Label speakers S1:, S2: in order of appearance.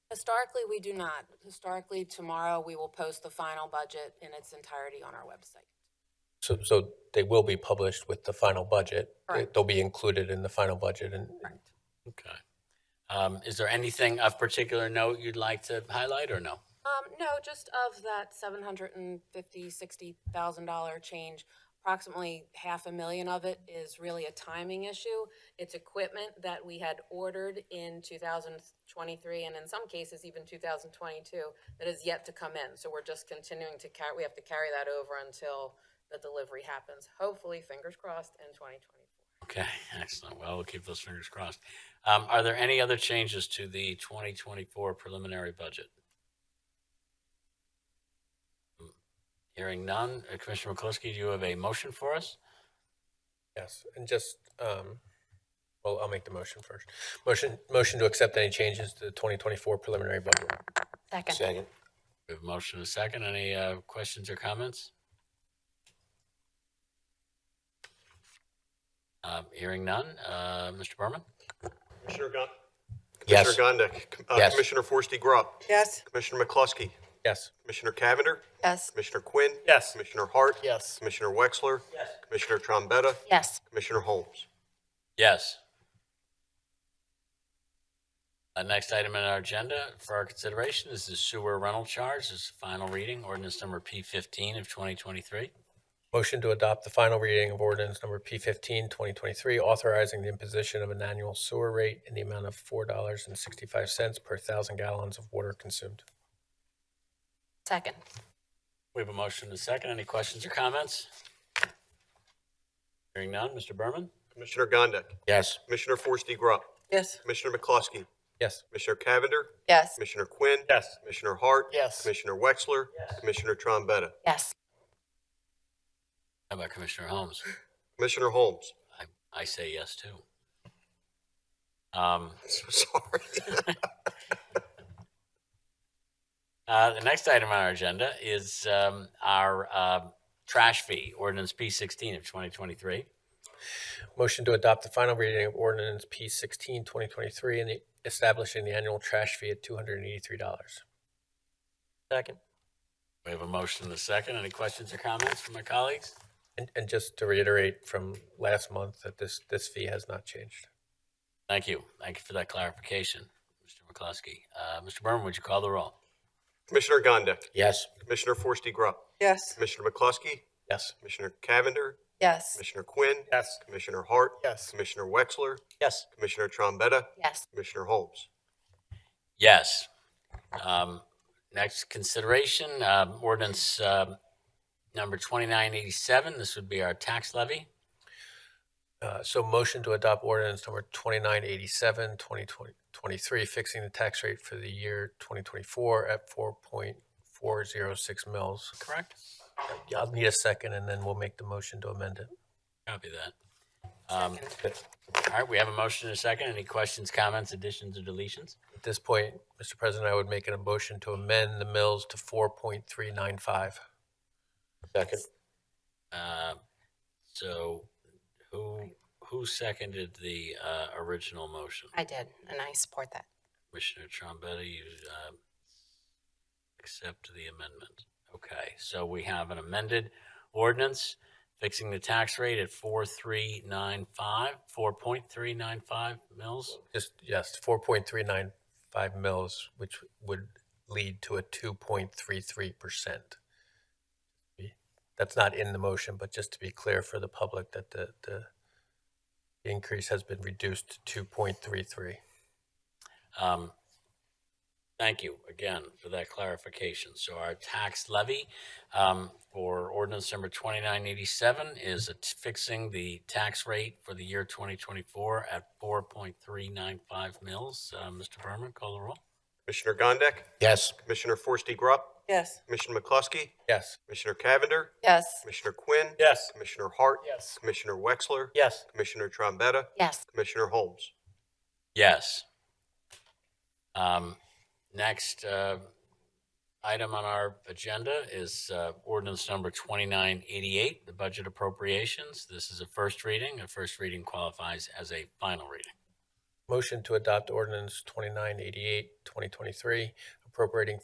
S1: Historically, we do not. Historically, tomorrow, we will post the final budget in its entirety on our website.
S2: So, so they will be published with the final budget. They-
S1: Correct.
S2: They'll be included in the final budget and
S3: Okay. Um, Is there anything of particular note you'd like to highlight or no?
S1: Um, no, just of that seven hundred and fifty, sixty thousand dollar change, approximately half a million of it is really a timing issue. It's equipment that we had ordered in two thousand twenty-three and in some cases even two thousand twenty-two that is yet to come in. So we're just continuing to carry, we have to carry that over until the delivery happens, hopefully, fingers crossed, in twenty twenty-four.
S3: Okay, excellent. Well, we'll keep those fingers crossed. Um, Are there any other changes to the 2024 preliminary budget? Hmm. Hearing none. Uh, Commissioner McCloskey, do you have a motion for us?
S2: yes, and just, um, well, I'll make the motion first. Motion, motion to accept any changes to the 2024 preliminary budget.
S1: Second.
S4: Second.
S3: We have a motion and a second. Any uh, questions or comments? Um, Hearing none. Uh, Mr. Berman?
S5: Commissioner Gon-
S2: Yes.
S5: Commissioner Gondik. Com- uh,
S2: Yes.
S5: Commissioner Forresty Grubb.
S6: yes,
S5: Commissioner McCluskey.
S2: Yes,
S5: Commissioner Cavender.
S1: Yes.
S5: Commissioner Quinn.
S4: Yes.
S5: Commissioner Hart.
S4: Yes.
S5: Commissioner Wexler. Yes. Commissioner Trombetta.
S1: Yes.
S5: Commissioner Holmes.
S3: Yes. The next item on our agenda for our consideration is the sewer rental charge. This is final reading, ordinance number P fifteen of twenty twenty-three.
S2: motion to adopt the final reading of ordinance number P 15, 2023, authorizing the imposition of an annual sewer rate in the amount of $4.65 per thousand gallons of water consumed.
S1: Second.
S3: We have a motion and a second. Any questions or comments? Hearing none. Mr. Berman?
S5: Commissioner Gondik.
S2: Yes.
S5: Commissioner Forresty Grubb.
S6: yes,
S5: Commissioner McCluskey.
S2: Yes,
S5: Commissioner Cavender.
S1: Yes.
S5: Commissioner Quinn.
S4: Yes.
S5: Commissioner Hart.
S4: Yes.
S5: Commissioner Wexler. Yes. Commissioner Trombetta.
S1: Yes.
S3: How about Commissioner Holmes?
S5: Commissioner Holmes.
S3: I, I say yes too. Um,
S5: So sorry.
S3: Uh, the next item on our agenda is um, our uh, trash fee, ordinance P16 of 2023.
S2: Motion to adopt the final reading of ordinance P 16, 2023, and the- establishing the annual trash fee at $283.
S4: Second.
S3: We have a motion and a second. Any questions or comments from my colleagues?
S2: And, and just to reiterate from last month that this, this fee has not changed.
S3: Thank you. Thank you for that clarification, Mr. McCloskey. Uh, Mr. Berman, would you call the roll?
S5: Commissioner Gondik.
S2: Yes.
S5: Commissioner Forresty Grubb.
S6: yes,
S5: Commissioner McCluskey.
S2: Yes.
S5: Commissioner Cavender.
S1: Yes.
S5: Commissioner Quinn.
S4: Yes.
S5: Commissioner Hart.
S4: Yes.
S5: Commissioner Wexler.
S4: Yes.
S5: Commissioner Trombetta.
S1: Yes.
S5: Commissioner Holmes.
S3: Yes. Um, next consideration, um, ordinance um number 2987. This would be our tax levy.
S2: Uh, so motion to adopt ordinance number 2987, 2023, fixing the tax rate for the year 2024 at 4.406 mils.
S3: Correct.
S2: Yeah, I'll need a second and then we'll make the motion to amend it.
S3: Copy that. Um, all right, we have a motion and a second. Any questions, comments, additions, or deletions?
S2: At this point, Mr. President, I would make an motion to amend the mills to 4.395.
S4: Second.
S3: Uh, So who, who seconded the uh, original motion?
S1: I did, and I support that.
S3: Commissioner Trombetta, you uh, accept the amendment. Okay, so we have an amended ordinance fixing the tax rate at 4395, 4.395 mils.
S2: Just, yes, 4.395 mils, which would lead to a 2.33%. That's not in the motion, but just to be clear for the public that the, the increase has been reduced to 2.33.
S3: Um, Thank you again for that clarification. So our tax levy um, for ordinance number 2987 is a t- fixing the tax rate for the year 2024 at 4.395 mils. Uh, Mr. Berman, call the roll.
S5: Commissioner Gondik.
S2: Yes.
S5: Commissioner Forresty Grubb.
S6: yes,
S5: Commissioner McCluskey.
S2: Yes.
S5: Commissioner Cavender.
S1: Yes.
S5: Commissioner Quinn.
S4: Yes.
S5: Commissioner Hart.
S4: Yes.
S5: Commissioner Wexler.
S4: Yes.
S5: Commissioner Trombetta.
S1: Yes.
S5: Commissioner Holmes.
S3: Yes. Um, next, uh, item on our agenda is, uh, ordinance number twenty-nine eighty-eight, the budget appropriations. This is a first reading. A first reading qualifies as a final reading.
S2: Motion to adopt ordinance 2988, 2023, appropriating